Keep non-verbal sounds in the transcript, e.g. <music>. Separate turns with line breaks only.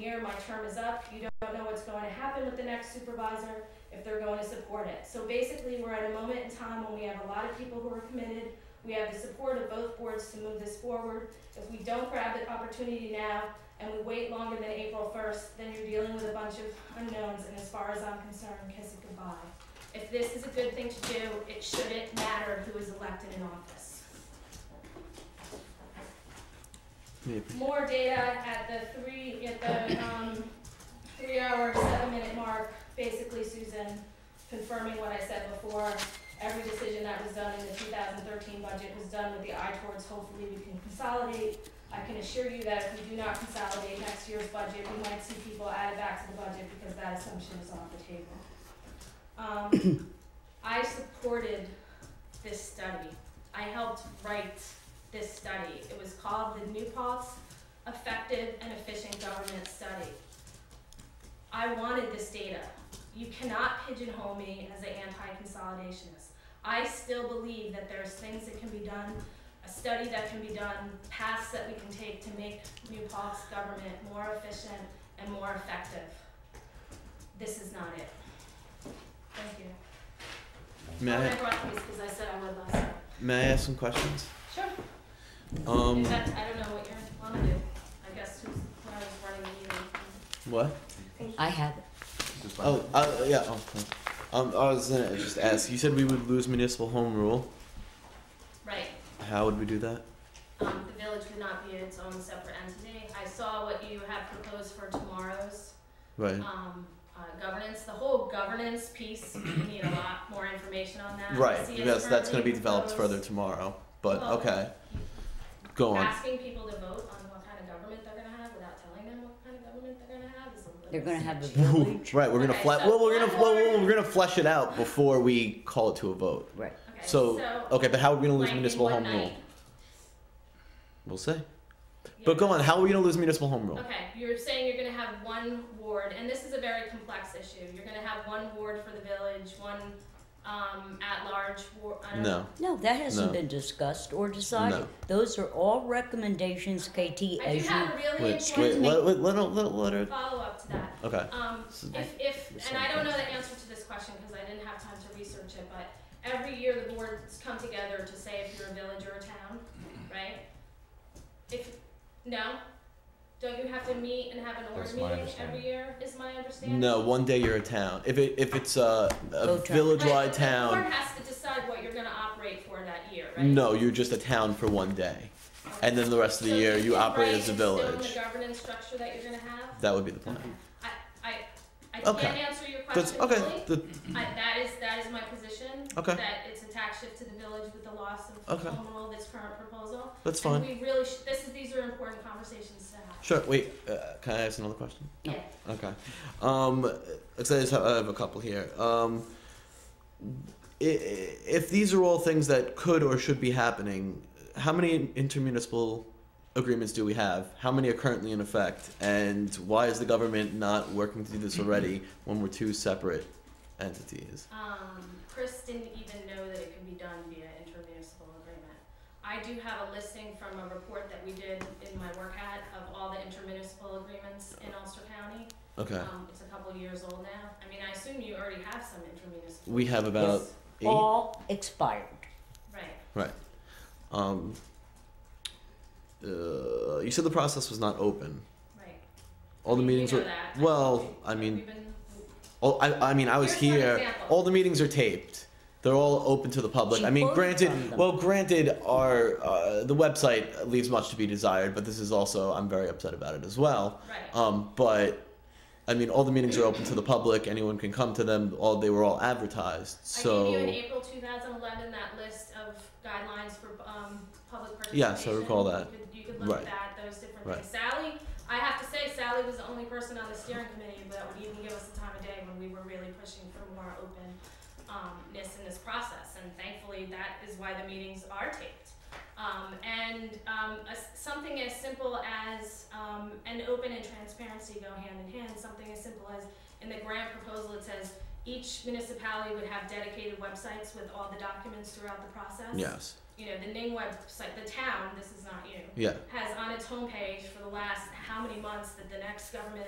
year, my term is up, you don't know what's going to happen with the next supervisor, if they're going to support it. So basically, we're at a moment in time when we have a lot of people who are committed, we have the support of both boards to move this forward. If we don't grab the opportunity now and we wait longer than April first, then you're dealing with a bunch of unknowns, and as far as I'm concerned, kiss it goodbye. If this is a good thing to do, it shouldn't matter who is elected in office. more data at the three, at the, um, three hour, seven minute mark, basically Susan confirming what I said before. Every decision that was done in the two thousand thirteen budget was done with the eye towards hopefully we can consolidate. I can assure you that if we do not consolidate next year's budget, we might see people added back to the budget because that assumption is off the table. Um, I supported this study. I helped write this study. It was called the New Paltz Effective and Efficient Government Study. I wanted this data. You cannot pigeonhole me as an anti-consolidationist. I still believe that there's things that can be done, a study that can be done, paths that we can take to make New Paltz government more efficient and more effective. This is not it. Thank you.
May
Oh,
I,
and I brought these because I said I would last time.
may I ask some questions?
Sure. In
Um,
fact, I don't know what you're want to do. I guess who's, when I was running the meeting.
what?
I have
Oh, uh, yeah. Oh, okay. um, I was gonna just ask. You said we would lose municipal home rule.
Right,
How would we do that?
um, the village would not be its own separate entity. I saw what you have proposed for tomorrow's,
Right.
um, uh, governance, the whole governance piece, we
<clears throat>
need a lot more information on that.
Right.
See, it's
Yes, that's gonna be
currently
developed further
proposed
tomorrow. But
Well-
okay. Go on.
Asking people to vote on what kind of government they're gonna have without telling them what kind of government they're gonna have is a little.
They're gonna have a
sketchy.
village.
<laughs> right. We're gonna
Okay,
fle-
so
well, we're gonna well,
landlord-
we're gonna flesh it out before we call it to a vote.
Right.
Okay,
So, okay, but how are we gonna
like
lose
in
municipal
one
home
night,
rule? We'll see.
you
But
know,
go on. How are we gonna lose municipal home rule?
Okay, you're saying you're gonna have one ward, and this is a very complex issue. You're gonna have one ward for the village, one um, at-large ward. I don't
No.
No, that hasn't
No.
been discussed or decided.
No.
Those are all recommendations, KT,
I do
as you.
have a really
Wait. Wait.
important
Let, let, let, her- let, let her.
follow-up to that.
Okay.
Um,
So-
if, if, and
Some
I don't know the
questions.
answer to this question because I didn't have time to research it, but every year the boards come together to say if you're a village or a town, right? If, no? Don't you have to meet and have an org
That's my
meeting every
understanding.
year, is my understanding?
No, one day you're a town. If it if it's a, a
Go town.
village-wide
Right, The
town,
board has to decide what you're gonna operate for that year, right?
no, you're just a town for one day, and then the rest of the
So
year you
can
operate
write
as a
and still in
village.
the governance structure that you're gonna have?
That would be the plan.
I, I, I
Okay.
can't answer your
That's
question fully.
okay. The,
I, that is, that is my position.
Okay.
That it's a tax shift to the village with the loss of
Okay.
home rule, this current proposal.
that's fine.
And we really, sh- this is, these are important conversations to have.
Sure. Wait. Uh, can I ask another question?
Yeah.
Okay. Um, 'cause I just have, I have a couple here. Um, i- i- if these are all things that could or should be happening, how many intermunicipal agreements do we have? How many are currently in effect? And why is the government not working to do this
<clears throat>
already when we're two separate entities?
Um, Chris didn't even know that it can be done via intermunicipal agreement. I do have a listing from a report that we did in my work hat of all the intermunicipal agreements in Ulster County.
Okay.
Um, it's a couple years old now. I mean, I assume you already have some intermunicipal.
We have about
Yes.
eight.
All expired.
Right.
Um, uh, you said the process was not open.
Right.
All the
You
meetings
know
were.
that.
Well, I mean,
We've been-
Oh, I, I mean, I was
Here's one
here.
example.
All the meetings are taped. They're all open to the public.
She
I mean,
quoted
granted,
from them.
well, granted, our uh, the website leaves much to be desired. But this is also, I'm very upset about it as well.
Right.
Um, but I mean, all the meetings are open to the public. Anyone can come to them. All they were all advertised.
I gave you in
So
April two thousand eleven that list of guidelines for, um, public participation.
Yes, I recall that.
You could, you could look at
Right.
that, those different
Right.
things. Sally, I have to say Sally was the only person on the steering committee that would even give us the time of day when we were really pushing for more openness in this process. And thankfully, that is why the meetings are taped. Um, and, um, a s something as simple as, um, an open and transparency go hand in hand, something as simple as, in the grant proposal, it says each municipality would have dedicated websites with all the documents throughout the process.
yes,
You know, the Ning website, the town, this is not you,
yeah,
has on its homepage for the last how many months that the next government